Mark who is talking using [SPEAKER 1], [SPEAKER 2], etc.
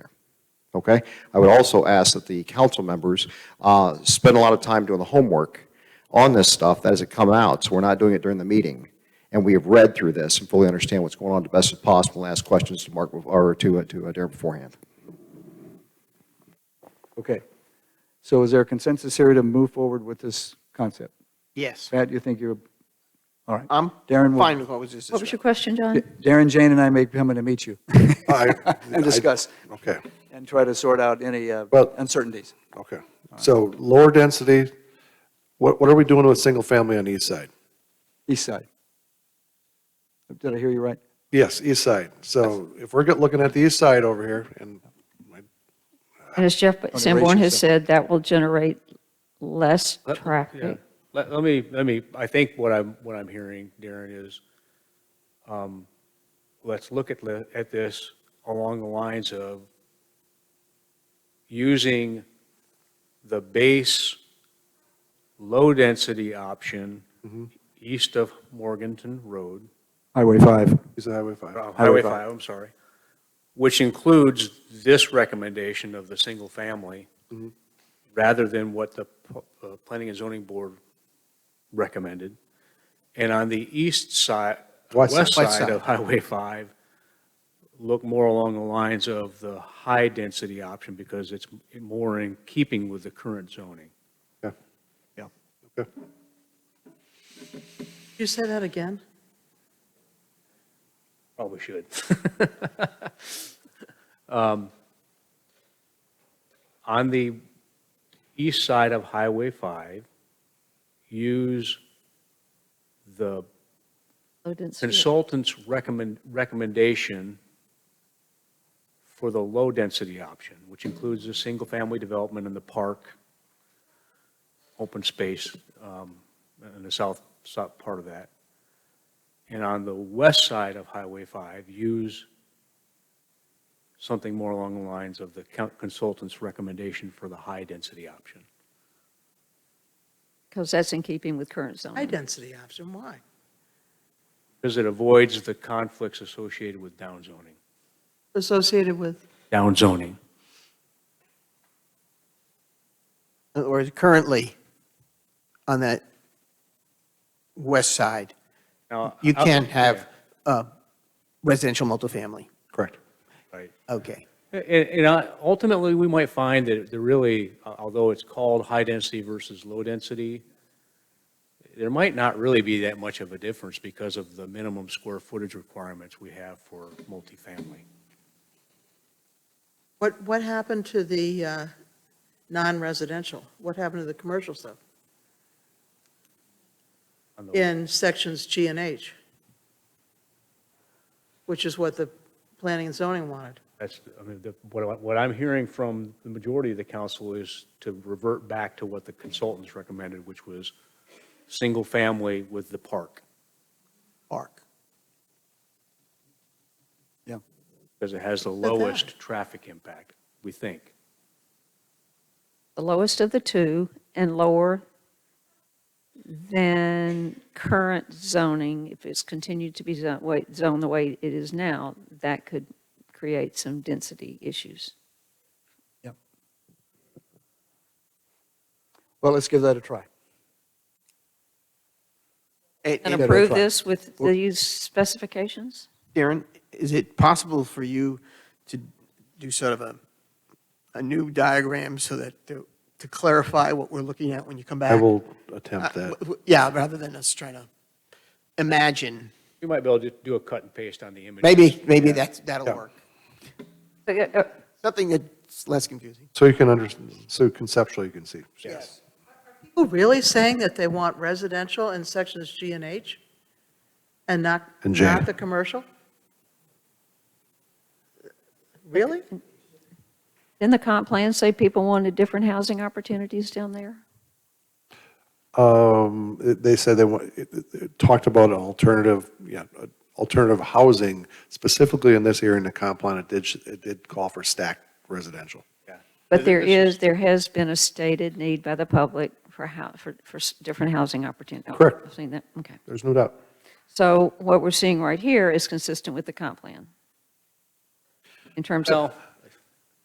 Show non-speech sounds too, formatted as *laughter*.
[SPEAKER 1] okay? I would also ask that the council members uh, spend a lot of time doing the homework on this stuff that hasn't come out, so we're not doing it during the meeting. And we have read through this and fully understand what's going on to best as possible, and ask questions to Mark, or to, uh, to uh, Darren beforehand.
[SPEAKER 2] Okay. So is there a consensus here to move forward with this concept?
[SPEAKER 3] Yes.
[SPEAKER 2] Pat, you think you're, all right.
[SPEAKER 3] I'm
[SPEAKER 2] Darren, will-
[SPEAKER 3] fine with Um, what was just
[SPEAKER 4] What was
[SPEAKER 3] described.
[SPEAKER 4] your question, John?
[SPEAKER 2] Darren, Jane, and I may be coming to meet you *laughs*
[SPEAKER 5] I-
[SPEAKER 2] and discuss
[SPEAKER 5] Okay,
[SPEAKER 2] and try to sort out any uh,
[SPEAKER 5] Well-
[SPEAKER 2] uncertainties.
[SPEAKER 5] okay. So lower density, what, what are we doing with single family on the east side?
[SPEAKER 2] East side. Did I hear you right?
[SPEAKER 5] Yes, east side. So if we're get- looking at the east side over here, and
[SPEAKER 4] And as Jeff Sanborn
[SPEAKER 2] ratio
[SPEAKER 4] has said, that will generate less
[SPEAKER 6] Let- yeah.
[SPEAKER 4] traffic.
[SPEAKER 6] Let, let me, let me, I think what I'm, what I'm hearing, Darren, is, um, let's look at, the- at this along the lines of using the base low-density option east of Morganton Road,
[SPEAKER 2] Highway 5.
[SPEAKER 5] east of Highway 5.
[SPEAKER 6] uh, Highway
[SPEAKER 2] five.
[SPEAKER 6] 5, I'm sorry, which includes this recommendation of the single-family,
[SPEAKER 5] Mhm.
[SPEAKER 6] rather than what the p- uh, Planning and Zoning Board recommended. And on the east side,
[SPEAKER 5] West side.
[SPEAKER 6] west
[SPEAKER 3] West
[SPEAKER 6] side of
[SPEAKER 3] side.
[SPEAKER 6] Highway 5, look more along the lines of the high-density option, because it's more in keeping with the current zoning.
[SPEAKER 3] You say that again?
[SPEAKER 6] Probably should. *laughs* Um, On the east side of Highway 5, use the
[SPEAKER 4] Low density.
[SPEAKER 6] consultant's recommend, recommendation for the low-density option, which includes the single-family development in the park, open space um, in the south, south part of that. And on the west side of Highway 5, use something more along the lines of the coun- consultant's recommendation for the high-density option.
[SPEAKER 4] Because that's in keeping with current
[SPEAKER 3] High
[SPEAKER 4] zoning.
[SPEAKER 3] density option, why?
[SPEAKER 6] Because it avoids the conflicts associated with downzoning.
[SPEAKER 3] Associated with,
[SPEAKER 6] Downzoning.
[SPEAKER 3] in other words, currently on that west side,
[SPEAKER 6] Now,
[SPEAKER 3] you
[SPEAKER 6] I-
[SPEAKER 3] can't
[SPEAKER 6] yeah.
[SPEAKER 3] have uh, residential multifamily.
[SPEAKER 5] Correct.
[SPEAKER 6] Right.
[SPEAKER 3] Okay.
[SPEAKER 6] And, and I- ultimately, we might find that there really, uh, although it's called high density versus low density, there might not really be that much of a difference because of the minimum square footage requirements we have for multifamily.
[SPEAKER 3] What, what happened to the uh, non-residential? What happened to the commercial stuff
[SPEAKER 6] on the-
[SPEAKER 3] in sections G and H? Which is what the planning and zoning wanted.
[SPEAKER 6] That's, I mean, the- what, I- what I'm hearing from the majority of the council is to revert back to what the consultants recommended, which was single family with the park,
[SPEAKER 3] Park.
[SPEAKER 6] because it has the
[SPEAKER 3] that.
[SPEAKER 6] lowest traffic impact, we think.
[SPEAKER 4] The lowest of the two and lower than current zoning. If it's continued to be zoned, way- zoned the way it is now, that could create some density issues.
[SPEAKER 2] Well, let's give that a try.
[SPEAKER 3] It-
[SPEAKER 4] And
[SPEAKER 3] it-
[SPEAKER 2] a
[SPEAKER 4] approve
[SPEAKER 2] try.
[SPEAKER 4] this with these specifications?
[SPEAKER 3] Darren, is it possible for you to do sort of a, a new diagram so that, to to clarify what we're looking at when you come back?
[SPEAKER 5] I will
[SPEAKER 3] Uh,
[SPEAKER 5] attempt that.
[SPEAKER 3] w- w- Yeah, rather than us trying to imagine.
[SPEAKER 6] We might be able to do a cut and paste on the image.
[SPEAKER 3] Maybe, maybe that's, that'll
[SPEAKER 5] Yeah.
[SPEAKER 3] work.
[SPEAKER 4] Uh, uh,
[SPEAKER 3] Something that's less confusing.
[SPEAKER 5] So you can under, so conceptually you can see.
[SPEAKER 3] Yes. People really saying that they want residential in sections G and H? And not,
[SPEAKER 5] And J.
[SPEAKER 3] not the commercial? Really?
[SPEAKER 4] Didn't the comp plan say people wanted different housing opportunities down there?
[SPEAKER 5] Um, it- they said they want, it, it- it talked about alternative, yeah, uh, alternative housing specifically in this area in the comp plan. It did, it did call for stacked residential.
[SPEAKER 4] But there is, there has been a stated need by the public for how, for, for s- different housing opportunities.
[SPEAKER 5] Correct.
[SPEAKER 4] I've seen that, okay.
[SPEAKER 5] There's no doubt.
[SPEAKER 4] So what we're seeing right here is consistent with the comp plan in terms of
[SPEAKER 6] Well-